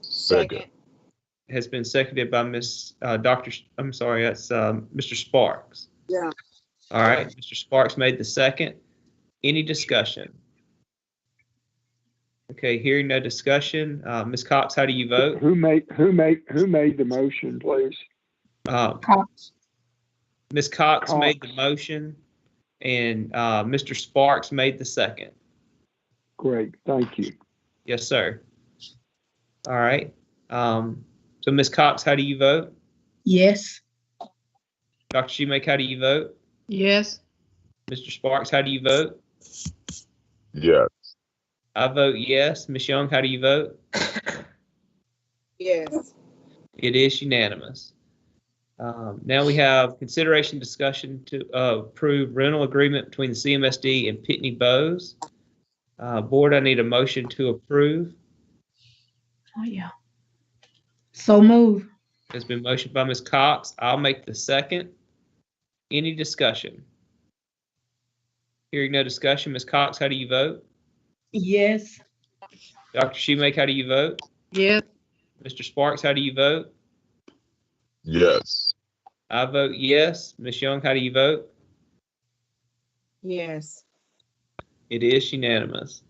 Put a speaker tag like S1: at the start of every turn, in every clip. S1: second.
S2: has been seconded by Miss, uh, Dr., S- I'm sorry, that's, um, Mr. Sparks.
S3: Yeah.
S2: All right, Mr. Sparks made the second. Any discussion? Okay, hearing no discussion. Uh, Ms. Cox, how do you vote?
S4: Who made, who made, who made the motion, please?
S2: Uh,
S5: Cox.
S2: Ms. Cox made the
S4: Cox.
S2: motion and, uh, Mr. Sparks made the second.
S4: Great, thank you.
S2: Yes, sir. All right. Um, so Ms. Cox, how do you vote?
S5: Yes.
S2: Dr. Schumake, how do you vote?
S5: Yes.
S2: Mr. Sparks, how do you vote?
S1: Yes.
S2: I vote yes. Ms. Young, how do you vote?
S3: Yes.
S2: It is unanimous. Um, Now we have consideration discussion to uh, approve rental agreement between the CMSD and Pitney Bowes. Uh, Board, I need a motion to approve.
S5: Oh, yeah. So move.
S2: It's been motioned by Ms. Cox. I'll make the second. Any discussion? Hearing no discussion. Ms. Cox, how do you vote?
S5: Yes.
S2: Dr. Schumake, how do you vote?
S5: Yes.
S2: Mr. Sparks, how do you vote?
S1: Yes.
S2: I vote yes. Ms. Young, how do you vote?
S3: Yes.
S2: It is unanimous.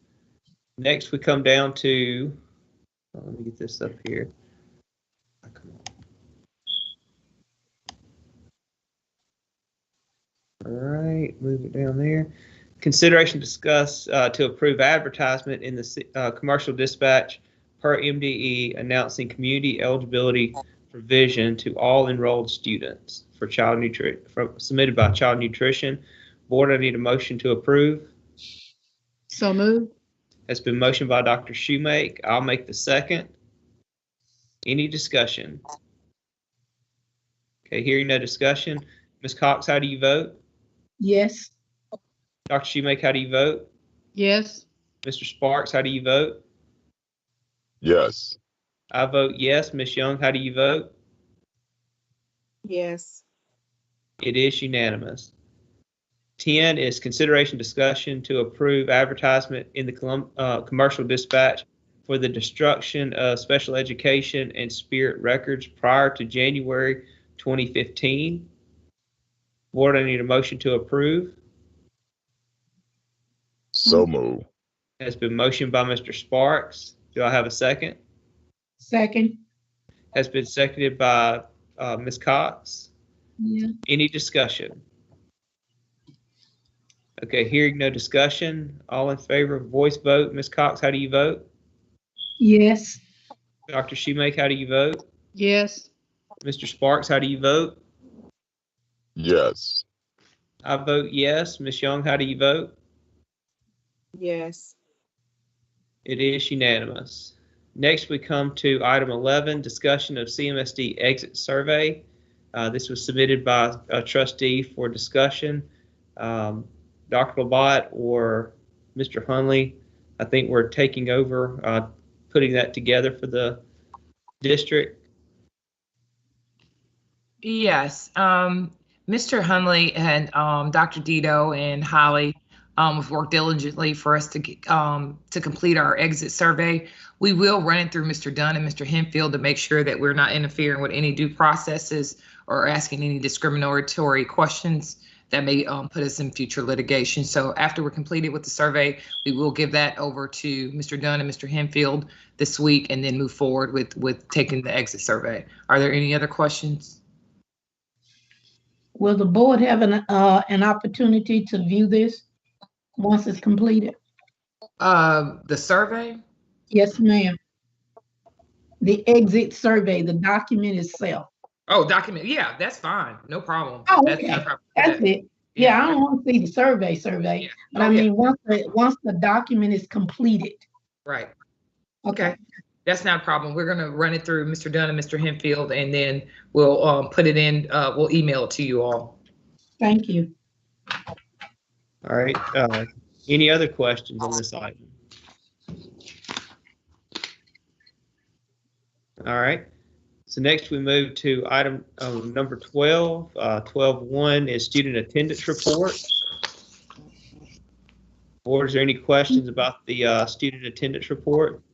S2: Next, we come down to, oh, let me get this up here. Oh, come on. All right, move it down there. Consideration discuss uh, to approve advertisement in the ci- uh, commercial dispatch per MDE announcing community eligibility provision to all enrolled students for child nutrition, submitted by Child Nutrition. Board, I need a motion to approve.
S5: So move.
S2: Has been motioned by Dr. Shoemake. I'll make the second. Any discussion? Okay, hearing no discussion. Ms. Cox, how do you vote?
S5: Yes.
S2: Dr. Shoemake, how do you vote?
S5: Yes.
S2: Mr. Sparks, how do you vote?
S1: Yes.
S2: I vote yes. Ms. Young, how do you vote?
S3: Yes.
S2: It is unanimous. 10 is consideration discussion to approve advertisement in the Colum- uh, Commercial Dispatch for the destruction of special education and spirit records prior to January 2015. Board, I need a motion to approve.
S1: So move.
S2: Has been motioned by Mr. Sparks. Do I have a second?
S5: Second.
S2: Has been seconded by uh, Ms. Cox.
S5: Yeah.
S2: Any discussion? Okay, hearing no discussion. All in favor, voice vote. Ms. Cox, how do you vote?
S5: Yes.
S2: Dr. Schumake, how do you vote?
S5: Yes.
S2: Mr. Sparks, how do you vote?
S1: Yes.
S2: I vote yes. Ms. Young, how do you vote?
S3: Yes.
S2: It is unanimous. Next, we come to item 11, discussion of CMSD exit survey. Uh, This was submitted by a trustee for discussion. Um, Dr. Labat or Mr. Hunley, I think we're taking over, uh, putting that together for the district.
S6: Yes, um, Mr. Hunley and, um, Dr. Dito and Holly, um, have worked diligently for us to, get- um, to complete our exit survey. We will run it through Mr. Dunn and Mr. Henfield to make sure that we're not interfering with any due processes or asking any discriminatory questions that may, um, put us in future litigation. So after we're completed with the survey, we will give that over to Mr. Dunn and Mr. Henfield this week and then move forward with, with taking the exit survey. Are there any other questions?
S7: Will the board have an, uh, an opportunity to view this once it's completed?
S6: Uh,
S7: Um,
S6: the survey?
S7: Yes, ma'am. The exit survey, the document itself.
S6: Oh, document, yeah, that's fine, no problem.
S7: Oh,
S6: That's
S7: okay.
S6: no problem with
S7: That's
S6: that.
S7: it. Yeah, I don't want to see the survey, survey. But I
S6: Oh, yeah,
S7: mean, once, the once the document is completed.
S6: Right, okay, that's not a problem, we're gonna run it through Mr. Dunn and Mr. Henfield, and then we'll, um, put it in, uh, we'll email it to you all.
S7: Thank you.
S2: All right, uh, any other questions on this item? All right, so next we move to item uh, number 12. Uh, 12.1 is student attendance report. Board, is there any questions about the uh, student attendance report?